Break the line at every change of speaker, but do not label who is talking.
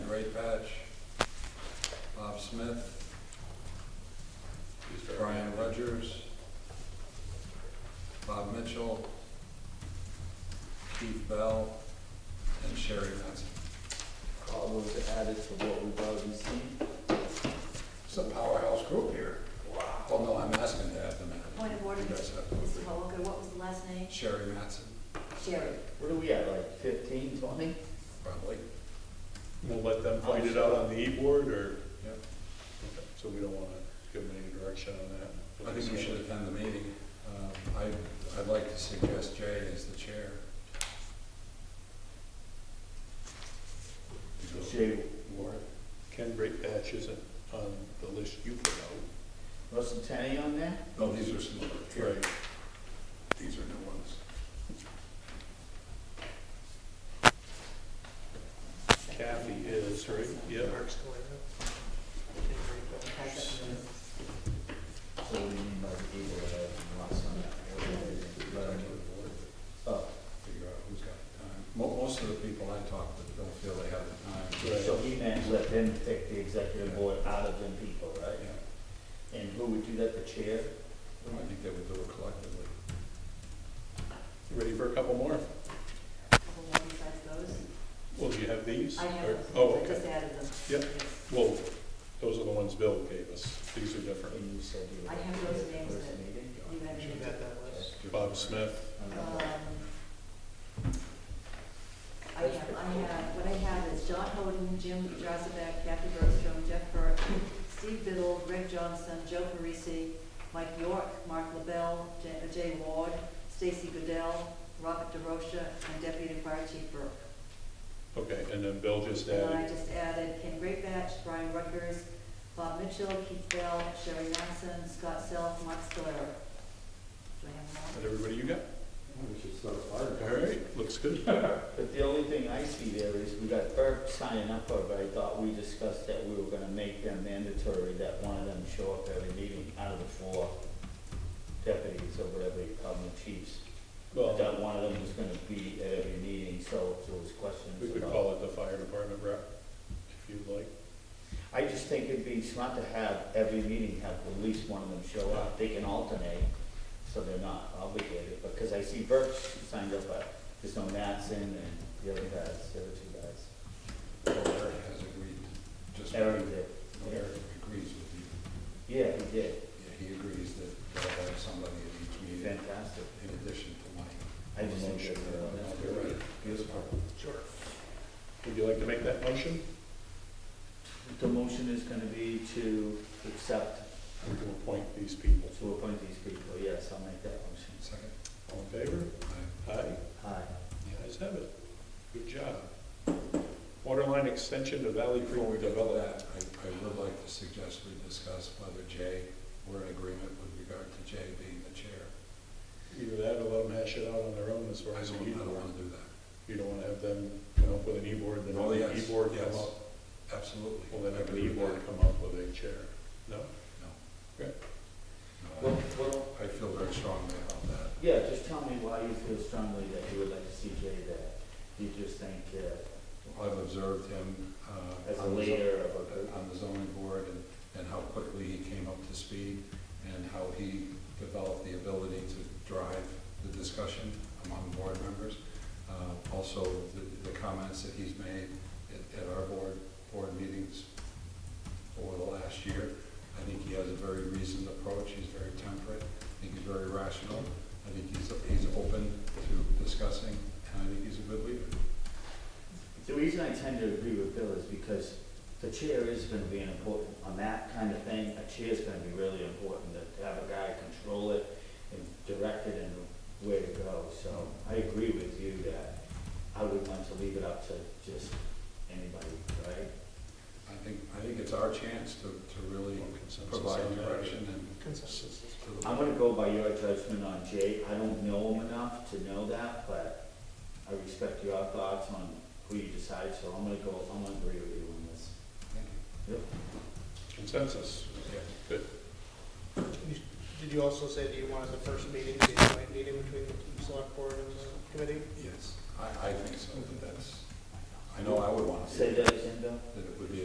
Ray Patch, Bob Smith, Brian Rogers, Bob Mitchell, Keith Bell, and Sherry Matson.
All those added to what we've already seen.
It's a powerhouse group here. Wow. Well, no, I'm asking to add them in.
Point of order,
You guys
Mr.
have to agree.
Holker, what was the last name?
Sherry Matson,
Sherry.
What are we at, like fifteen, twenty?
probably.
We'll let them find it out on the e-board, or,
Yep.
so we don't want to give them any direction on that.
I think we should attend the meeting. Um, I, I'd like to suggest Jay as the chair.
So,
Jay,
Warren, Ken Great Patch isn't on the list you put out.
Russ and Tenny on there?
No, Oh, these are some, here,
Right.
these are new ones.
Kathy is, right? Yeah.
So we need like people that have lost on that.
Let
Let
them
'em
do the board,
Oh,
figure out who's got the time. Mo- Most of the people I talk to don't feel they have the time.
Right.
so he meant let them pick the executive board out of them people, right?
Yeah,
And who would do that, the chair?
I think they would do it collectively.
Ready for a couple more?
Couple more besides those?
Well, do you have these?
I have
Or-
those.
Oh,
I just
okay.
added them.
Yep.
Yes.
Well, those are the ones Bill gave us. These are different.
And you said you
I
would-
have those names
First
that-
meeting?
You had it.
Bob Smith,
I'm
Um,
not-
I have, I have, what I have is John Holden, Jim Drossback, Kathy Burstrom, Jeff Burke, Steve Biddle, Rick Johnson, Joe Parisi, Mike York, Mark LaBelle, J- uh, Jay Ward, Stacy Goodell, Robert DeRosa, and Deputy Fire Chief Burke.
okay, and then Bill just
And then I
added,
just added Ken Greatbatch, Brian Rutgers, Bob Mitchell, Keith Bell, Sherry Matson, Scott Self, Mark Stoller. Do I have them all?
that everybody you got? All right, looks good.
But the only thing I see there is we got Burke signing up for, it, but I thought we discussed that we were gonna make them mandatory, that one of them show up every meeting out of the four deputies or whatever you call them, chiefs.
Well-
That one of them was gonna be at every meeting, so if there was
We
questions
could
about.
call it the fire department rep, if you'd like.
I just think it'd be smart to have every meeting, have at least one of them show up. They can alternate, so they're not obligated, because I see Burke signed up, but there's no Matson and the other guys, the other two guys.
Eric has agreed, just.
Aaron did.
Eric agrees with you.
Yeah, he did.
Yeah, He agrees that they'll have somebody at each
He's
meeting
fantastic.
in addition to Mike.
I just think
Motion.
that, uh,
Now,
that's
you're
great.
right. Beautiful.
Sure. Would you like to make that motion?
The motion is gonna be to accept,
Or to appoint these people?
to appoint these people. Yes, I'll make that motion.
Second.
All in favor?
Aye.
Aye.
Aye.
The ayes have it. Good job. Waterline extension to Valley
Before we
Creek
get to
Development.
that, I, I would like to suggest we discuss whether Jay, we're in agreement with regard to Jay being the chair.
Either that or let them hash it out on their own as far
I
as the
don't, I don't
e-board.
wanna do that.
You don't want to have them come up with an e-board, then have
Oh,
the
yes,
e-board come
yes.
up.
Absolutely.
Well, then have an
Agree with
e-board
that.
come up with a chair. No?
No.
Okay.
Well,
No,
well,
I I feel very strongly about that.
yeah, just tell me why you feel strongly that you would like to see Jay there. Do you just think, uh,
I've observed him, uh.
as a
on the zo-
leader of a group?
On the zoning board and, and how quickly he came up to speed and how he developed the ability to drive the discussion among board members. Uh, also, the, the comments that he's made at, at our board, board meetings over the last year. I think he has a very reasoned approach, he's very temperate, I think he's very rational, I think he's, he's open to discussing, and I think he's a good leader.
The reason I tend to agree with Bill is because the chair is gonna be an important, on that kind of thing, a chair's gonna be really important, that to have a guy control it and direct it in the way to go, so I agree with you that I would want to leave it up to just anybody, right?
I think, I think it's our chance to, to really
Consensus on
provide
that?
direction and.
Consensus.
to the-
I'm gonna go by your judgment on Jay, I don't know him enough to know that, but I respect your thoughts on who you decide, so I'm gonna go, I'm gonna agree with you on this.
Thank you.
Consensus.
Yeah.
Good.
Did you also say that you wanted the first meeting, to be a joint meeting between the select board and the committee?
Yes, I, I think so, but that's,
I know I would want to see
Say
it.
that again, Bill?
That it